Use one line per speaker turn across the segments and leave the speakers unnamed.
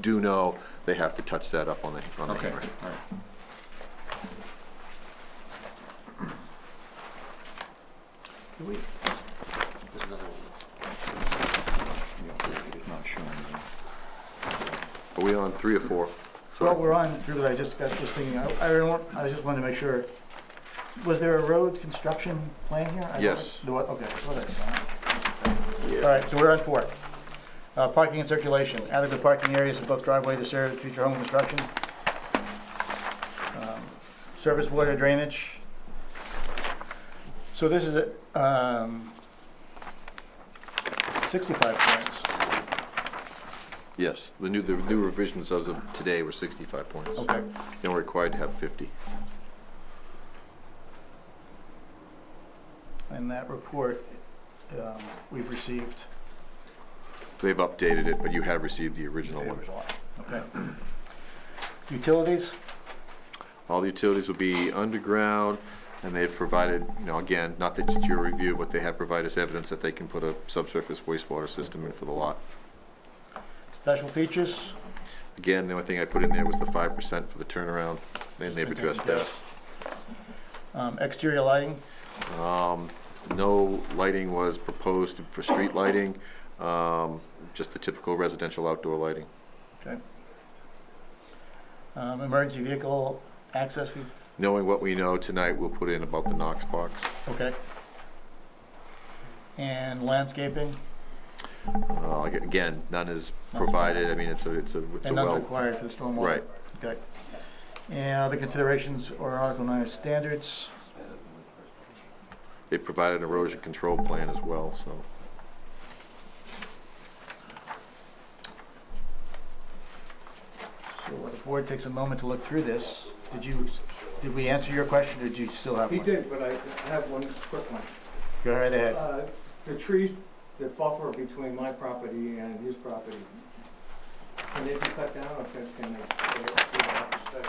do know they have to touch that up on the, on the
Okay,
hammerhead.
all right.
Can we,
There's another one.
Yeah, Not showing there.
are we on three or four?
Well,
Sorry.
we're on, Drew, I just got this thing, I, I don't, I just wanted to make sure, was there a road construction plan here? I don't-
Yes.
The what, okay, that's what I saw. All right, so we're on four. Uh, parking and circulation, adequate parking areas in both driveway to serve future home construction. Um, Surface water drainage. So this is, a, um, sixty-five points.
Yes, the new, the new revisions as of today were sixty-five points.
Okay.
And we're required to have fifty.
And that report, um, we've received.
They've updated it, but you have received the original one.
Okay. Utilities,
All the utilities will be underground, and they've provided, you know, again, not that it's your review, but they have provided us evidence that they can put a subsurface wastewater system in for the lot.
special features,
Again, the only thing I put in there was the five percent for the turnaround, and they've addressed that.
um, exterior lighting,
No lighting was proposed for street lighting, um, just the typical residential outdoor lighting.
okay. Um, Emergency vehicle access, we-
Knowing what we know tonight, we'll put in about the Knox box.
okay. And landscaping,
Uh, aga- again, none is provided, I mean, it's a, it's a, it's a
and none's
well.
required for the stormwater.
Right.
Okay. And other considerations or Article 9 standards,
They provided an erosion control plan as well, so.
so the board takes a moment to look through this. Did you, did we answer your question, or do you still have
He
one?
did, but I have one quick one.
Go right ahead.
Uh, The trees that buffer between my property and his property, can they be cut down or can can they?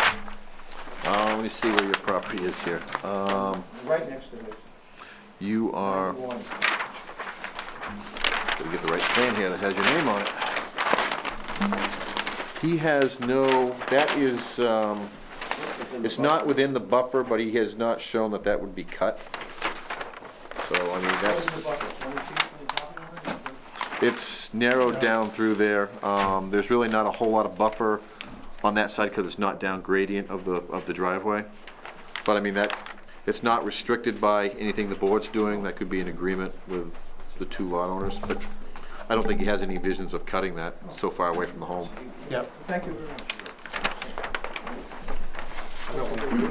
Uh, let me see where your property is here. Um,
Right next to this.
you are,
one.
gotta get the right plan here that has your name on it. He has no, that is, um, it's not within the buffer, but he has not shown that that would be cut. So, I mean, that's,
Where's the buffer, 20 feet from the property line?
it's narrowed down through there. Um, there's really not a whole lot of buffer on that side because it's not down gradient of the, of the driveway. But I mean, that, it's not restricted by anything the board's doing. That could be an agreement with the two lot owners, but I don't think he has any visions of cutting that It's so far away from the home.
Yep.
Thank you very much.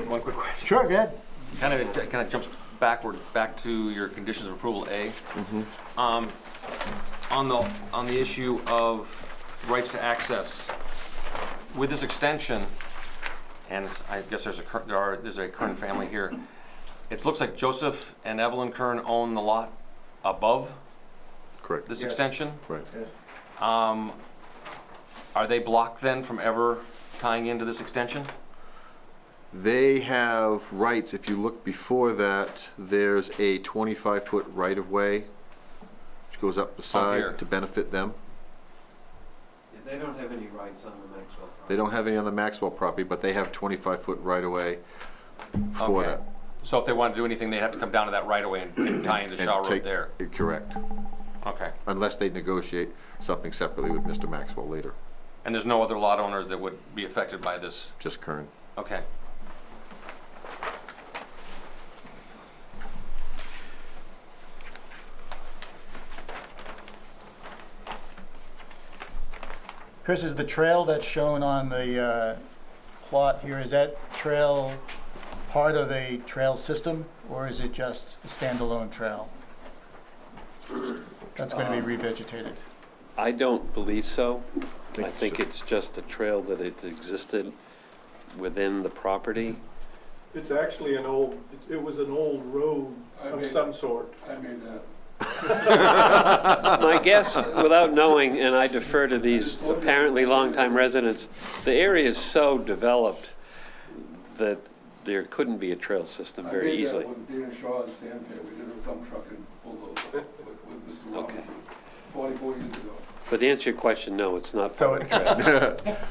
One quick question.
Sure, go ahead.
Kind of, it kind of jumps backward, back to your conditions of approval A. Um, on the, on the issue of rights to access, with this extension, and it's- I guess there's a, Kern- there are, there's a Kern family here, it looks like Joseph and Evelyn Kern own the lot above
Correct.
this
Yeah.
extension.
Right.
Um, are they blocked then from ever tying into this extension?
They have rights, if you look before that, there's a twenty-five foot right-of-way which goes up the
here.
side to benefit them.
They don't have any rights on the Maxwell property.
They don't have any on the Maxwell property, but they have twenty-five foot right-of-way for
Okay.
that.
So if they want to do anything, they'd have to come down to that right away and- and tie into
and
Shaw Road
take-
there.
Correct,
Okay.
unless they negotiate something separately with Mr. Maxwell later,
And there's no other lot owner that would be affected by this?
just Kern.
Okay.
Chris, is the trail that's shown on the uh, plot here, is that trail part of a trail system, or is it just a standalone trail? That's going to be revegetated.
I don't believe so. I think it's just a trail that it existed within the property.
It's actually an old, it- it was an old road of some sort.
My guess, without knowing, and I defer to these apparently longtime residents, the area is so developed that there couldn't be a trail system very easily.
I did that with Dana Shaw and Sam Pitt, we did a dump truck and bulldozer with, with Mr.
Okay.
Robinson, forty-four years ago.
But to answer your question, no, it's not
So
part of the trail.